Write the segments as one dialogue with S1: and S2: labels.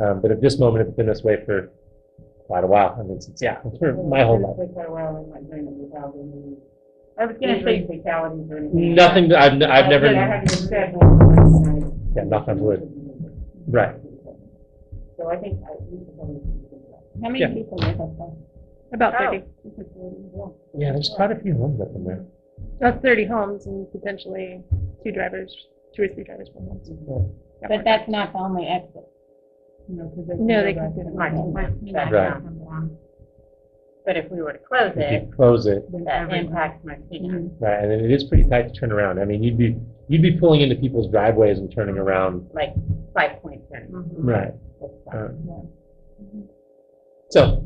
S1: Um, but at this moment, it's been this way for quite a while. I mean, since, yeah, for my whole life.
S2: Quite a while in my brain without any.
S3: I was gonna say,
S2: Fatalities or anything.
S1: Nothing, that I've, n- I've never,
S2: Oh, I haven't been sad one.
S1: yeah, knock on wood. Right.
S2: So I think I, we should probably. do that.
S4: How many
S1: Yeah.
S4: people live up there?
S3: about
S2: Oh.
S3: thirty,
S1: Yeah, there's quite a few homes up in there.
S3: that's thirty homes and potentially two drivers, two or three drivers per home.
S4: But that's not the only exit. You know, 'cause
S3: No, they
S4: go back
S3: can-
S4: to the-
S2: Right, right, back
S1: Right.
S2: down and along. But if we were to close
S1: If
S2: it,
S1: you close it,
S2: that impacts Martina.
S4: Mhm.
S1: right, and then it is pretty tight to turn around. I mean, you'd be, you'd be pulling into people's driveways and turning around.
S2: like five point turn.
S1: Right.
S2: Mm-hmm. That's
S1: Um, So.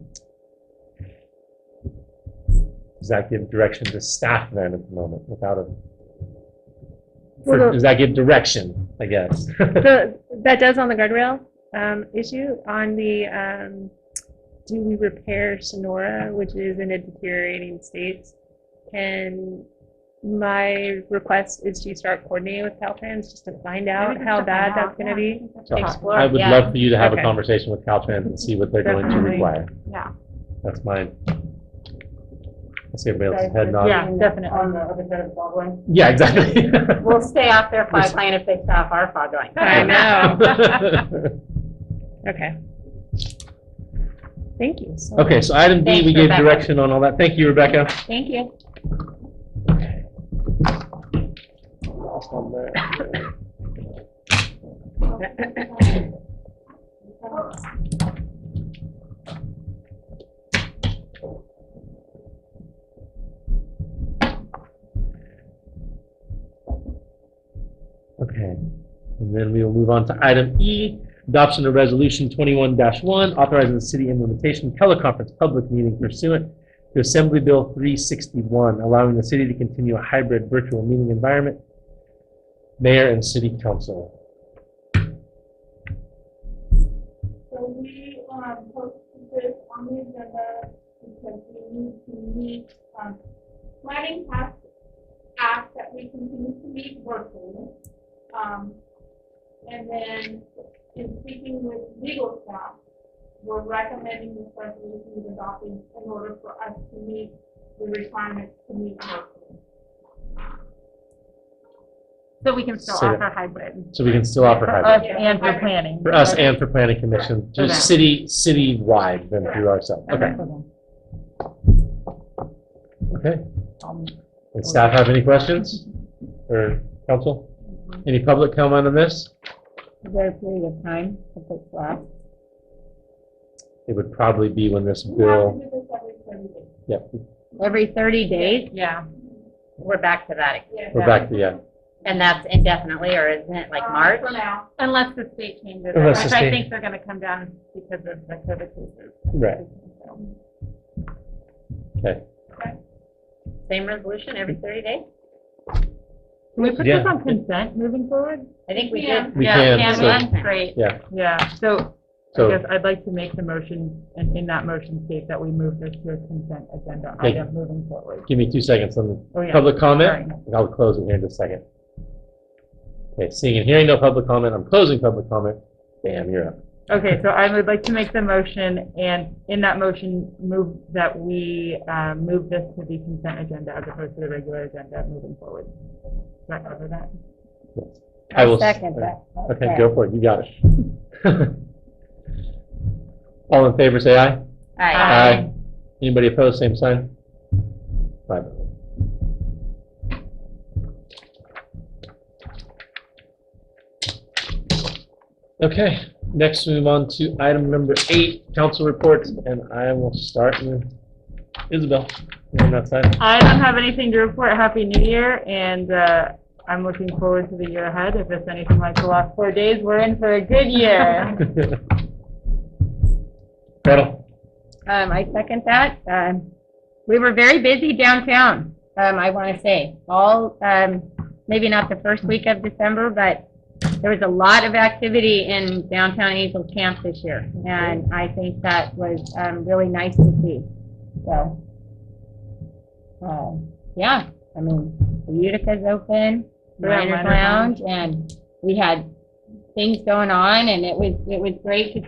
S1: Does that give direction to staff then at the moment without a?
S3: Well, the-
S1: Does that give direction, I guess?
S3: So that does on the guardrail, um, issue, on the, um, do we repair Sonora, which is in a deteriorating state? And my request is to start coordinating with Caltrans just to find out how bad that's gonna be.
S1: So
S2: Explore,
S1: I would
S2: yeah.
S1: love for you to have a
S3: Okay.
S1: conversation with Caltrans and see what they're going to
S3: Definitely.
S1: require.
S2: Yeah.
S1: That's mine. I see everybody else's head nodding.
S3: Yeah, definitely.
S2: On the other side of the ball line.
S1: Yeah, exactly.
S2: We'll stay off their fog line if they stop our fog line.
S3: I know. Okay. Thank you so much.
S1: Okay, so item D,
S2: Thanks,
S1: we gave
S2: Rebecca.
S1: direction on all that. Thank you, Rebecca.
S4: Thank you.
S1: Okay, and then we will move on to item E, adoption of resolution twenty-one one, authorizing the city implementation teleconference public meeting pursuant to Assembly Bill three sixty-one, allowing the city to continue a hybrid virtual meeting environment, mayor and city council.
S5: So we, um, posted this on the agenda because we need to meet, um, planning has asked that we continue to meet virtually. Um, and then in speaking with legal staff, we're recommending this resolution be adopted in order for us to meet the requirements to meet virtually.
S2: So we can
S1: still Say that.
S2: hybrid.
S1: So we can still offer hybrid,
S5: and for
S2: planning.
S1: for us and for planning commission, just city, city-wide than through ourselves. Okay, okay.
S3: Um,
S1: Does staff have any questions? Or council? Any public comment on this?
S4: Is there a period of time to put slack?
S1: It would probably be when this
S5: We have
S1: bill,
S5: to do this every thirty days.
S1: yep,
S4: Every thirty days?
S2: Yeah, we're back to that.
S5: Yeah.
S1: we're back to, yeah.
S2: And that's indefinitely, or isn't it like
S5: Um,
S2: March?
S5: For now.
S2: Unless the state changes it,
S1: Unless the
S2: which I
S1: state-
S2: think they're gonna come down because of the COVID cases.
S1: Right. Okay.
S2: Same resolution every thirty days?
S3: Can we put
S1: Yeah.
S3: this on consent moving forward?
S2: I think we
S5: Yeah.
S2: did.
S1: We
S3: Yeah,
S1: can,
S3: yeah,
S1: so-
S3: that's great.
S1: Yeah.
S3: Yeah, so I
S1: So,
S3: guess I'd like to make the motion, and in that motion state that we move this to a consent agenda
S1: Okay.
S3: item moving forward.
S1: give me two seconds on
S3: Oh,
S1: the
S3: yeah.
S1: public comment,
S3: Sorry.
S1: and I'll close it here in just a second. Okay, seeing and hearing no public comment, I'm closing public comment. Bam, you're up.
S3: Okay, so I would like to make the motion, and in that motion, move that we um, move this to the consent agenda as opposed to the regular agenda moving forward. Does that cover that?
S1: I will. s-
S4: Second that.
S1: Okay, go for it, you got it. All in favor, say aye.
S2: Aye.
S1: Anybody opposed, same sign? Five. Okay, next we move on to item number eight, council reports, and I will start with Isabel. You're on that side.
S3: I don't have anything to report. Happy New Year, and uh, I'm looking forward to the year ahead. If it's anything like the last four days, we're in for a good year.
S1: Gretel,
S4: Um, I second that. Um, we were very busy downtown, um, I want to say. All, um, maybe not the first week of December, but there was a lot of activity in downtown Angels Camp this year. And I think that was, um, really nice to see. So, um, yeah, I mean, the Utica's open,
S3: Yeah,
S4: Mariners
S3: Mariners Lounge.
S4: Lounge, and we had things going on and it was, it was great to